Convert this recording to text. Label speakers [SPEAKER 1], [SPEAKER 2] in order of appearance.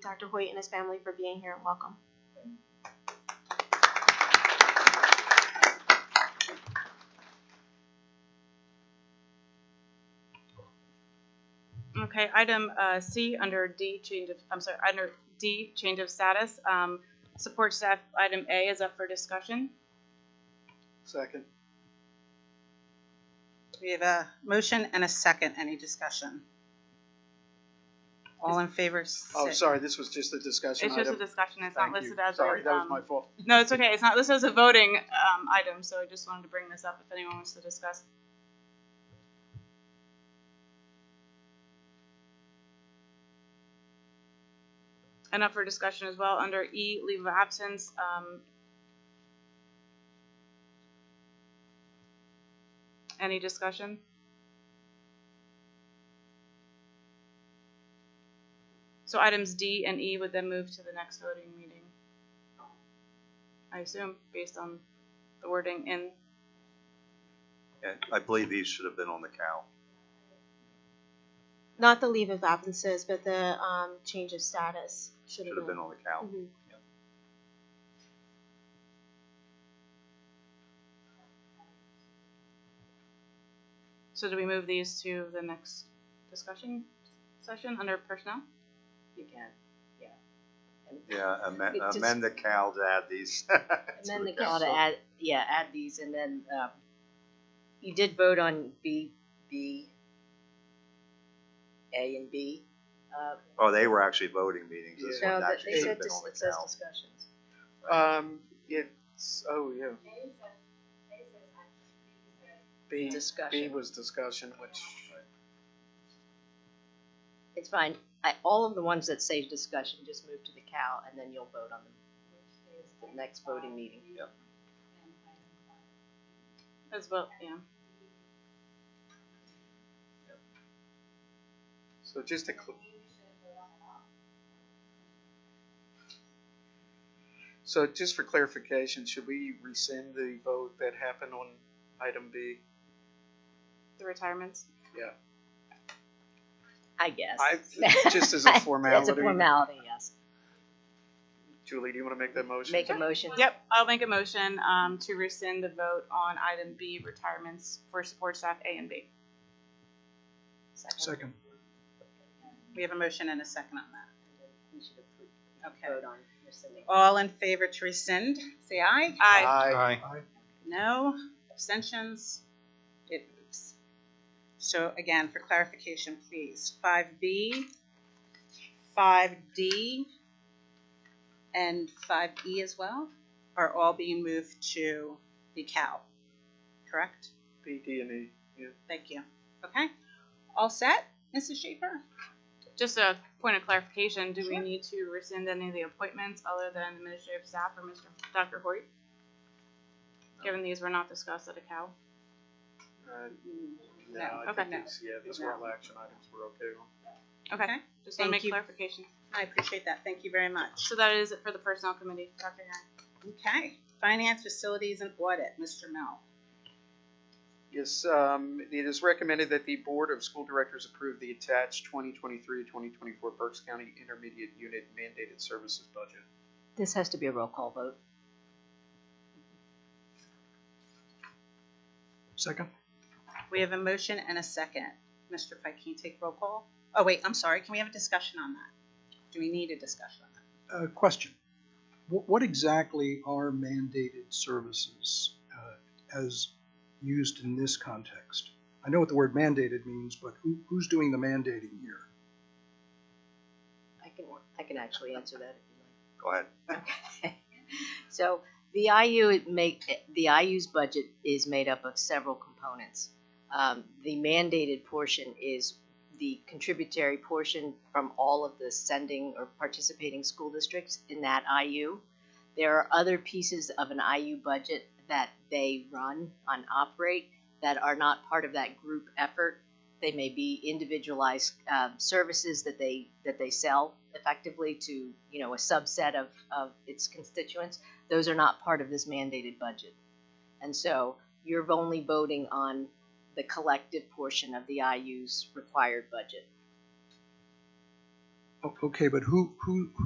[SPEAKER 1] Dr. Hoyt and his family for being here and welcome.
[SPEAKER 2] Okay, item uh, C under D change of, I'm sorry, under D change of status, um, support staff item A is up for discussion.
[SPEAKER 3] Second.
[SPEAKER 4] We have a motion and a second. Any discussion? All in favor?
[SPEAKER 3] Oh,
[SPEAKER 4] say-
[SPEAKER 3] sorry, this was just a discussion
[SPEAKER 2] It's just a
[SPEAKER 3] item.
[SPEAKER 2] discussion, it's not
[SPEAKER 3] Thank you.
[SPEAKER 2] listed as a,
[SPEAKER 3] Sorry, that was
[SPEAKER 2] um,
[SPEAKER 3] my fault.
[SPEAKER 2] No, it's okay, it's not listed as a voting um, item, so I just wanted to bring this up if anyone wants to discuss. And up for discussion as well, under E, leave of absence, um, any discussion? So items D and E would then move to the next voting meeting. I assume, based on the wording in,
[SPEAKER 5] And I believe these should have been on the cow.
[SPEAKER 1] Not the leave of absences, but the um, change of status should
[SPEAKER 5] Should have been on the cow.
[SPEAKER 1] Mhm.
[SPEAKER 2] so do we move these to the next discussion session under personnel?
[SPEAKER 6] You can, yeah.
[SPEAKER 5] Yeah, amend,
[SPEAKER 6] It just-
[SPEAKER 5] amend the cow to add these.
[SPEAKER 6] And then the call to add, yeah, add these, and then, um, you did vote on B, B, A and B. Uh,
[SPEAKER 5] Oh, they were actually voting meetings. This
[SPEAKER 3] Yeah.
[SPEAKER 6] no,
[SPEAKER 5] one
[SPEAKER 6] but
[SPEAKER 5] actually
[SPEAKER 6] they
[SPEAKER 5] should
[SPEAKER 6] said
[SPEAKER 5] have been
[SPEAKER 6] this,
[SPEAKER 5] on
[SPEAKER 6] it
[SPEAKER 5] the
[SPEAKER 6] says
[SPEAKER 5] cow.
[SPEAKER 6] discussions.
[SPEAKER 3] Um, it's, oh, yeah. B, B
[SPEAKER 6] Discussion.
[SPEAKER 3] was discussion, which,
[SPEAKER 6] It's fine. I, all of the ones that say discussion, just move to the cow, and then you'll vote on them. The next voting meeting.
[SPEAKER 2] As well, yeah.
[SPEAKER 3] so just to, cl- so just for clarification, should we rescind the vote that happened on item B?
[SPEAKER 2] The retirements.
[SPEAKER 6] I guess.
[SPEAKER 3] I, just as a
[SPEAKER 6] It's a
[SPEAKER 3] formality.
[SPEAKER 6] formality, yes.
[SPEAKER 3] Julie, do you wanna make that motion?
[SPEAKER 6] Make a motion.
[SPEAKER 2] Yep, I'll make a motion um, to rescind the vote on item B, retirements for support staff A and B.
[SPEAKER 6] Second.
[SPEAKER 3] Second.
[SPEAKER 4] We have a motion and a second on that.
[SPEAKER 6] We should approve,
[SPEAKER 4] Okay.
[SPEAKER 6] vote on rescinding.
[SPEAKER 4] All in favor to rescind, say aye.
[SPEAKER 2] Aye.
[SPEAKER 4] No, abstentions, it moves. So again, for clarification, please, five B, five D, and five E as well are all being moved to the cow, correct?
[SPEAKER 3] B, D, and E, yeah.
[SPEAKER 4] Thank you. Okay, all set, Mrs. Schaefer?
[SPEAKER 2] Just a point of clarification, do we
[SPEAKER 4] Sure.
[SPEAKER 2] need to rescind any of the appointments other than administrative staff or Mr. Dr. Hoyt? Given these were not discussed at a cow.
[SPEAKER 3] Uh, No,
[SPEAKER 4] No,
[SPEAKER 3] I
[SPEAKER 2] okay.
[SPEAKER 3] think it's, yeah, those were all action items we're okay on.
[SPEAKER 2] Okay,
[SPEAKER 4] Okay.
[SPEAKER 2] just want to
[SPEAKER 4] Thank
[SPEAKER 2] make
[SPEAKER 4] you.
[SPEAKER 2] clarification.
[SPEAKER 4] I appreciate that, thank you very much.
[SPEAKER 2] So that is it for the personnel committee, Dr. Herring.
[SPEAKER 4] Okay, finance, facilities, and audit, Mr. Mel.
[SPEAKER 3] Yes, um, it is recommended that the Board of School Directors approve the attached 2023-2024 Berks County Intermediate Unit Mandated Services Budget.
[SPEAKER 6] This has to be a roll call vote.
[SPEAKER 3] Second.
[SPEAKER 4] We have a motion and a second. Mr. Pike, can you take roll call? Oh, wait, I'm sorry, can we have a discussion on that? Do we need a discussion on that?
[SPEAKER 7] Uh, question. What, what exactly are mandated services uh, as used in this context? I know what the word mandated means, but who, who's doing the mandating here?
[SPEAKER 6] I can, I can actually answer that if you like.
[SPEAKER 5] Go ahead.
[SPEAKER 6] So the IU it make the IU's budget is made up of several components. Um, the mandated portion is the contributory portion from all of the sending or participating school districts in that IU. There are other pieces of an IU budget that they run and operate that are not part of that group effort. They may be individualized um, services that they that they sell effectively to you know a subset of, of its constituents. Those are not part of this mandated budget, and so you're only voting on the collective portion of the IU's required budget.
[SPEAKER 3] O- Okay, but who, who,